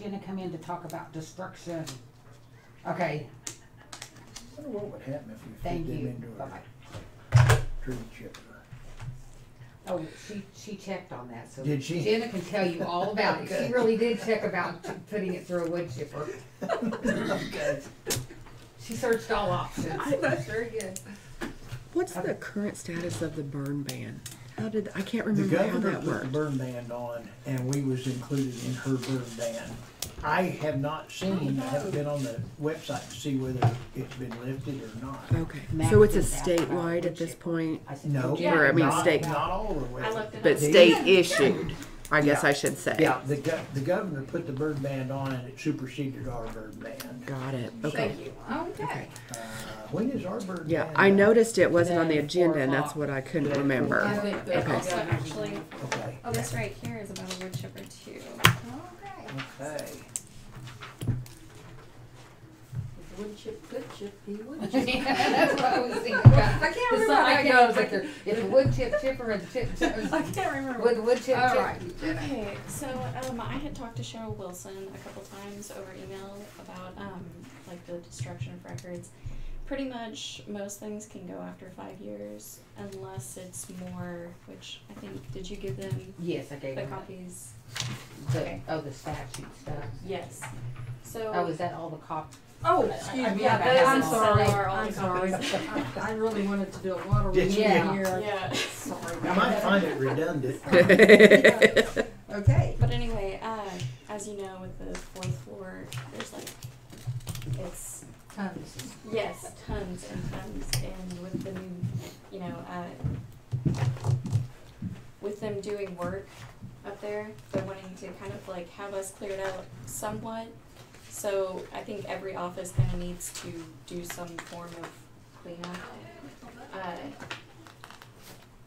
Jenna come in to talk about destruction. Okay, Wonder what would happen if we fed thank them you. into Bye-bye. a tree chipper. Oh, she, she checked on that, so. Did she? Jenna can tell you all about it. She Okay. really did check about t- putting it through a wood chipper. Okay. She searched all options. That's very good. What's the current status of the burn ban? How did, I can't The remember how governor that put the worked. burn band on, and we was included in her burn band. I have not seen, I haven't been on the website to see whether it's been lifted or not. Okay, Max so it's a is out about statewide wood at this chipper. point, I said, No, "Jenna, Or, I mean, not, state. not all the way. I looked it but up. state issued, I guess Yeah. I should say. Yeah, the go- the governor put the bird band on and it superseded our bird band. Got it, okay. Thank you. Okay. Uh, when is our bird band? Yeah, I up? noticed it wasn't on the Then four agenda and that's o'clock. what I couldn't Then remember. four And Okay. also actually, Okay, oh, this right here is about a wood chipper too. Okay. okay. Wood chip, good chip, he would That's what I was thinking about. I can't The remember song- how I it can't goes. think of- It's a wood chip chipper and chip, I can't remember. with wood chip All chipper. right. Okay, so um, I had talked to Cheryl Wilson a couple times over email about um, like the destruction of records. Pretty much most things can go after five years unless it's more, which I think, did you give them Yes, I gave the him copies? the, oh, the statute stuff. Yes. So. Oh, is that all the cop? Oh, I- excuse me. yeah, I- I'm those sorry. are all I'm sorry. I I really wanted to do a water Did you? reading here. Yeah. Sorry. I might find it redundant. Okay. But anyway, uh, as you know, with the fourth floor, there's like, it's Tons. Yes, tons and tons, and with the new, you know, uh, with them doing work up there, they're wanting to kind of like have us cleared out somewhat. So I think every office kind of needs to do some form of cleanup. Uh,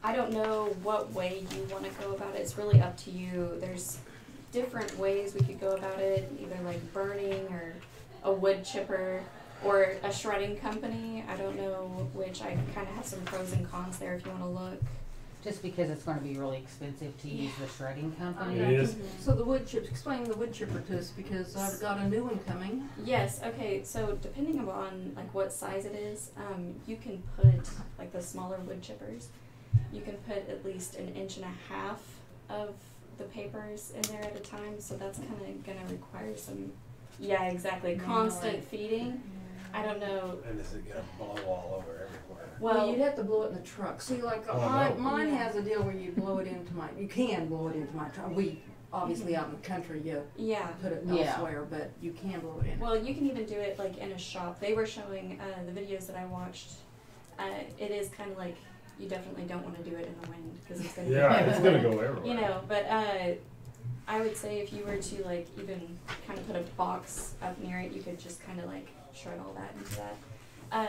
I don't know what way you want to go about it. It's really up to you. There's different ways we could go about it, either like burning or a wood chipper or a shredding company. I don't know which. I kind of have some pros and cons there if you want to look. Just because it's gonna be really expensive to use the shredding company. It is. So the wood chips, explain the wood chipper to us because I've got a new one coming. Yes. Okay. So depending upon like what size it is, um, you can put like the smaller wood chippers. You can put at least an inch and a half of the papers in there at a time. So that's kind of gonna require some. Yeah. Exactly. Constant feeding. I don't know. And this is gonna blow all over everywhere. Well, you'd have to blow it in the truck. See, like Oh, mine, no. mine Yeah. has a deal where you blow it into my. You can blow it into my truck. We obviously out in the country you yeah. put it Yeah. elsewhere, but you can blow it in. Well, you can even do it like in a shop. They were showing uh, the videos that I watched. Uh, it is kind of like you definitely don't want to do it in the wind because it's gonna Yeah, be it's gonna go everywhere. You know, but uh, I would say if you were to like even kind of put a box up near it, you could just kind of like shred all that into that. Uh,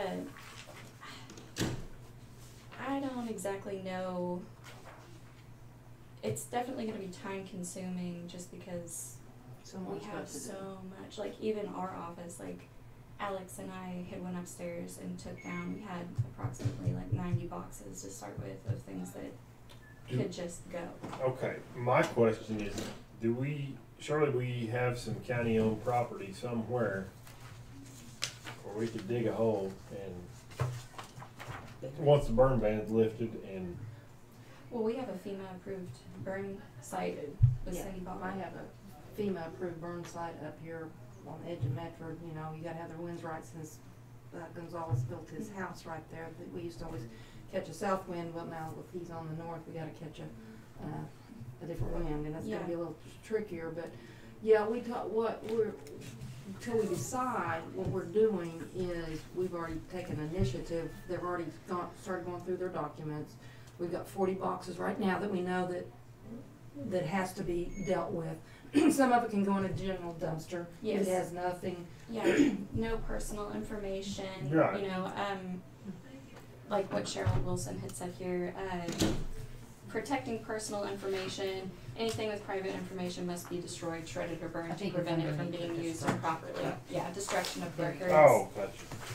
I don't exactly know. It's definitely going to be time consuming just because we Someone's got have to do. so it. much. Like even our office, like Alex and I had went upstairs and took down. We had approximately like ninety boxes to start with of things that Do- could just go. Okay, my question is, do we, surely we have some county-owned property somewhere where we could dig a hole and, once the burn ban's lifted and, Well, we have a FEMA approved burn site. The Yeah, city bought. I have a FEMA approved burn site up here on the edge of Medford, you know, you gotta have the winds right since uh, Gonzalez built his house right there, that we used to always catch a south wind, well now if he's on the north, we gotta catch a, uh, a different wind, and that's gonna Yeah. be a little trickier, but, yeah, we talk, what, we're, until we decide what we're doing is, we've already taken initiative, they've already gone, started going through their documents. We've got forty boxes right now that we know that, that has to be dealt with. Some of it can go in a general dumpster, Yes. it has nothing, Yeah, no personal information. Right. You know, um, like what Cheryl Wilson had said here. Uh, protecting personal information. Anything with private information must be destroyed, shredded, or I burned to think it's prevent it from underneath being the used destruction. improperly. Yeah, destruction of records. oh, gotcha.